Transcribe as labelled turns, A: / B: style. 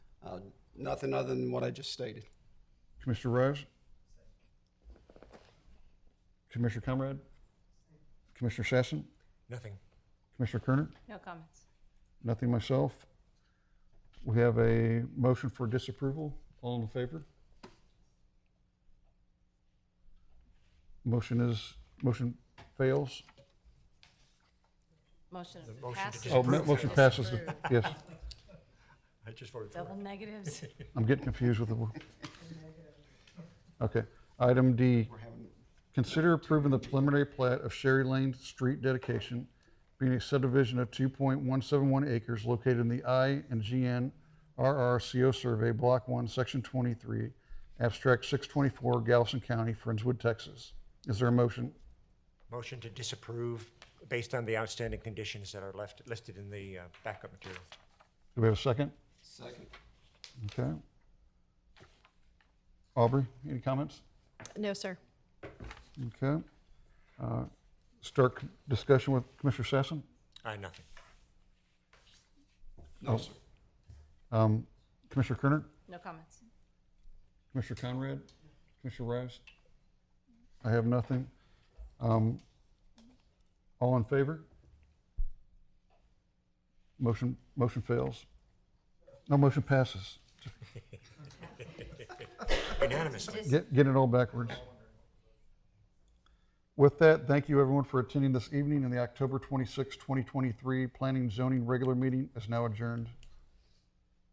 A: Uh, Nothing other than what I just stated.
B: Commissioner Rose? Commissioner Comrade? Commissioner Sassen?
C: Nothing.
B: Commissioner Kerner?
D: No comments.
B: Nothing myself. We have a motion for disapproval. All in favor? Motion is, motion fails.
D: Motion
C: The motion to
D: passes.
B: Oh, mo-
C: Disapprove.
B: motion passes. Yes,
C: I just voted for
D: Double negatives.
B: I'm getting confused with the word. Okay. Item D,
A: We're having,
B: Consider approving the preliminary plat of Sherry Lane Street dedication, being a subdivision of 2.171 acres located in the I and GN RRCO survey, Block 1, Section 23, Abstract 624, Galveston County, Friendswood, Texas. Is there a motion?
C: it. Motion to disapprove based on the outstanding conditions that are left, listed in the uh, backup material.
B: Do we have a second?
A: second.
B: Okay. Aubrey, any comments?
E: No, sir.
B: Okay. Uh, Start discussion with Commissioner Sassen.
C: Uh, nothing.
A: No, sir.
B: Um, Commissioner Kerner?
D: No comments.
B: Commissioner Conrad? Commissioner Rice? I have nothing. Um, All in favor? Motion, motion fails. No, motion passes.
C: Unanimously.
B: Get, get it all backwards. With that, thank you everyone for attending this evening, and the October 26, 2023 Planning and Zoning Regular Meeting is now adjourned.